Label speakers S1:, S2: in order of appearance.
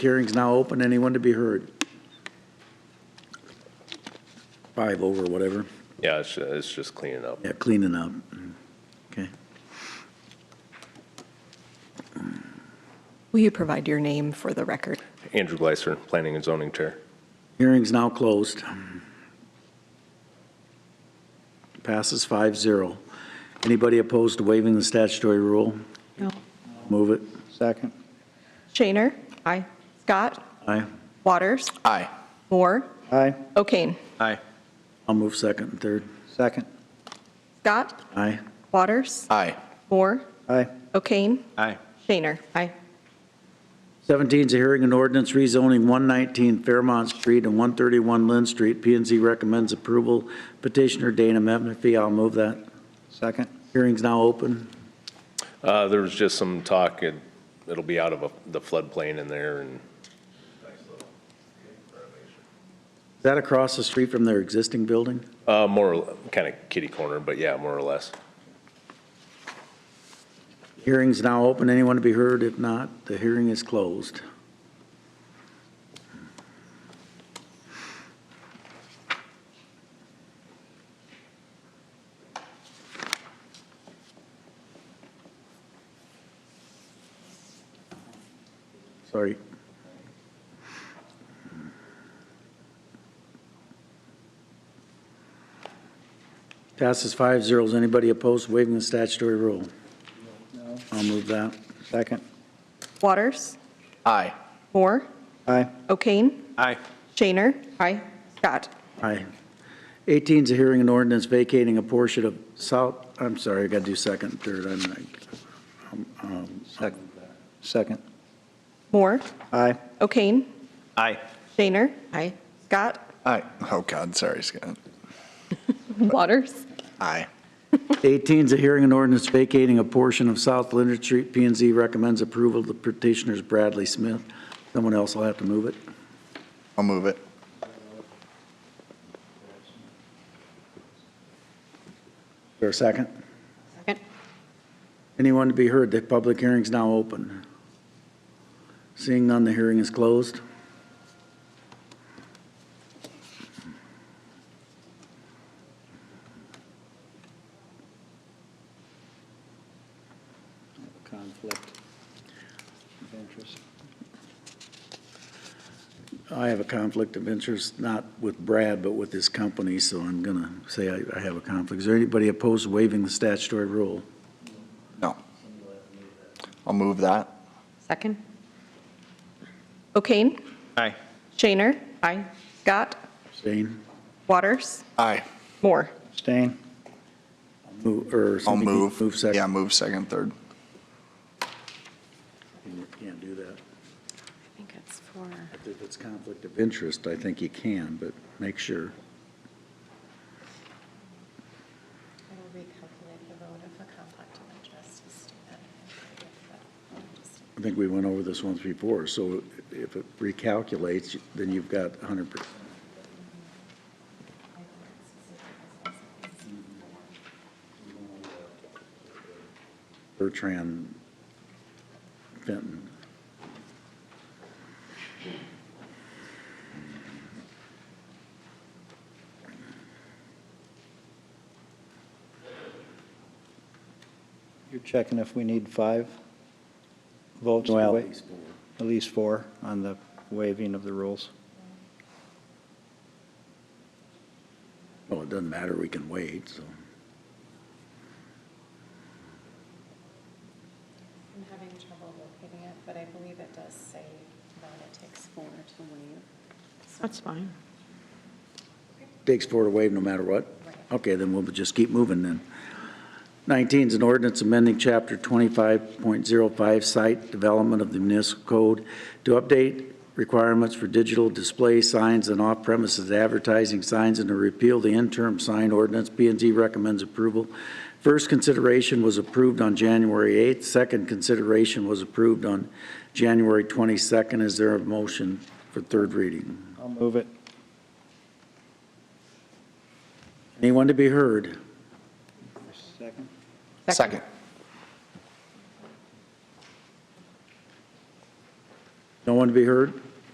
S1: Hearing's now open. Anyone to be heard? Five over, whatever.
S2: Yeah, it's, ju- it's just cleaning up.
S1: Yeah, cleaning up. Okay.
S3: Will you provide your name for the record?
S2: Andrew Gleiser, Planning and Zoning Chair.
S1: Hearing's now closed. Passes five zero. Anybody opposed to waiving the statutory rule?
S3: No.
S1: Move it.
S4: Second.
S3: Shaner? Aye. Scott?
S1: Aye.
S3: Waters?
S4: Aye.
S3: Moore?
S4: Aye.
S3: O'Kane?
S4: Aye.
S1: I'll move second and third.
S4: Second.
S3: Scott?
S1: Aye.
S3: Waters?
S4: Aye.
S3: Moore?
S4: Aye.
S3: O'Kane?
S4: Aye.
S3: Shaner? Aye.
S1: 17 is a hearing and ordinance rezoning 119 Fairmont Street and 131 Lynn Street. p and Z recommends approval. Petitioner Dana Mepney, I'll move that.
S4: Second.
S1: Hearing's now open.
S2: Uh, there was just some talk, it, it'll be out of a- the floodplain in there and
S1: Is that across the street from their existing building?
S2: Uh, more, kind of kitty corner, but yeah, more or less.
S1: Hearing's now open. Anyone to be heard? If not, the hearing is closed. Sorry. Passes five zeros. Anybody opposed to waiving the statutory rule? I'll move that.
S4: Second.
S3: Waters?
S4: Aye.
S3: Moore?
S4: Aye.
S3: O'Kane?
S4: Aye.
S3: Shaner? Aye. Scott?
S1: Aye. 18 is a hearing and ordinance vacating a portion of South, I'm sorry, I got to do second, third, I'm like,
S4: Second. Second.
S3: Moore?
S4: Aye.
S3: O'Kane?
S4: Aye.
S3: Shaner? Aye. Scott?
S5: Aye. Oh, God, sorry, Scott.
S3: Waters?
S5: Aye.
S1: 18 is a hearing and ordinance vacating a portion of South Leonard Street. p and Z recommends approval of the petitioners Bradley Smith. Someone else will have to move it.
S5: I'll move it.
S1: Is there a second?
S3: Second.
S1: Anyone to be heard? The public hearing's now open. Seeing none, the hearing is closed.
S4: Conflict of interest.
S1: I have a conflict of interest, not with Brad, but with his company, so I'm going to say I I have a conflict. Is there anybody opposed to waiving the statutory rule?
S5: No. I'll move that.
S3: Second. O'Kane?
S4: Aye.
S3: Shaner? Aye. Scott?
S1: Abstain?
S3: Waters?
S5: Aye.
S3: Moore?
S4: Abstain.
S1: Move, or
S5: I'll
S1: somebody
S5: move.
S1: Move
S5: Yeah,
S1: second.
S5: move second, third.
S1: You Can't do that.
S6: I think it's for,
S1: If it's conflict of interest, I think you can, but make sure.
S6: it'll recalculate the vote if a conflict of interest is stated.
S1: I think we went over this once before, so if it recalculates, then you've got 100%. Bertrand Fenton.
S4: You're checking if we need five votes? to wa- At least four on the waiving of the rules.
S1: Well, it doesn't matter, we can wait, so.
S6: I'm having trouble locating it, but I believe it does say that it takes four to waive. So-
S7: That's fine.
S1: Takes four to waive no matter what?
S6: Right.
S1: Okay, then we'll just keep moving then. 19 is an ordinance amending Chapter 25.05 Site Development of the Municipal Code to update requirements for digital display signs and off-premises advertising signs and to repeal the interim sign ordinance. p and Z recommends approval. First consideration was approved on January 8th. Second consideration was approved on January 22nd. Is there a motion for third reading?
S4: I'll move it.
S1: Anyone to be heard?
S4: Second.
S5: Second.
S1: No one to be heard?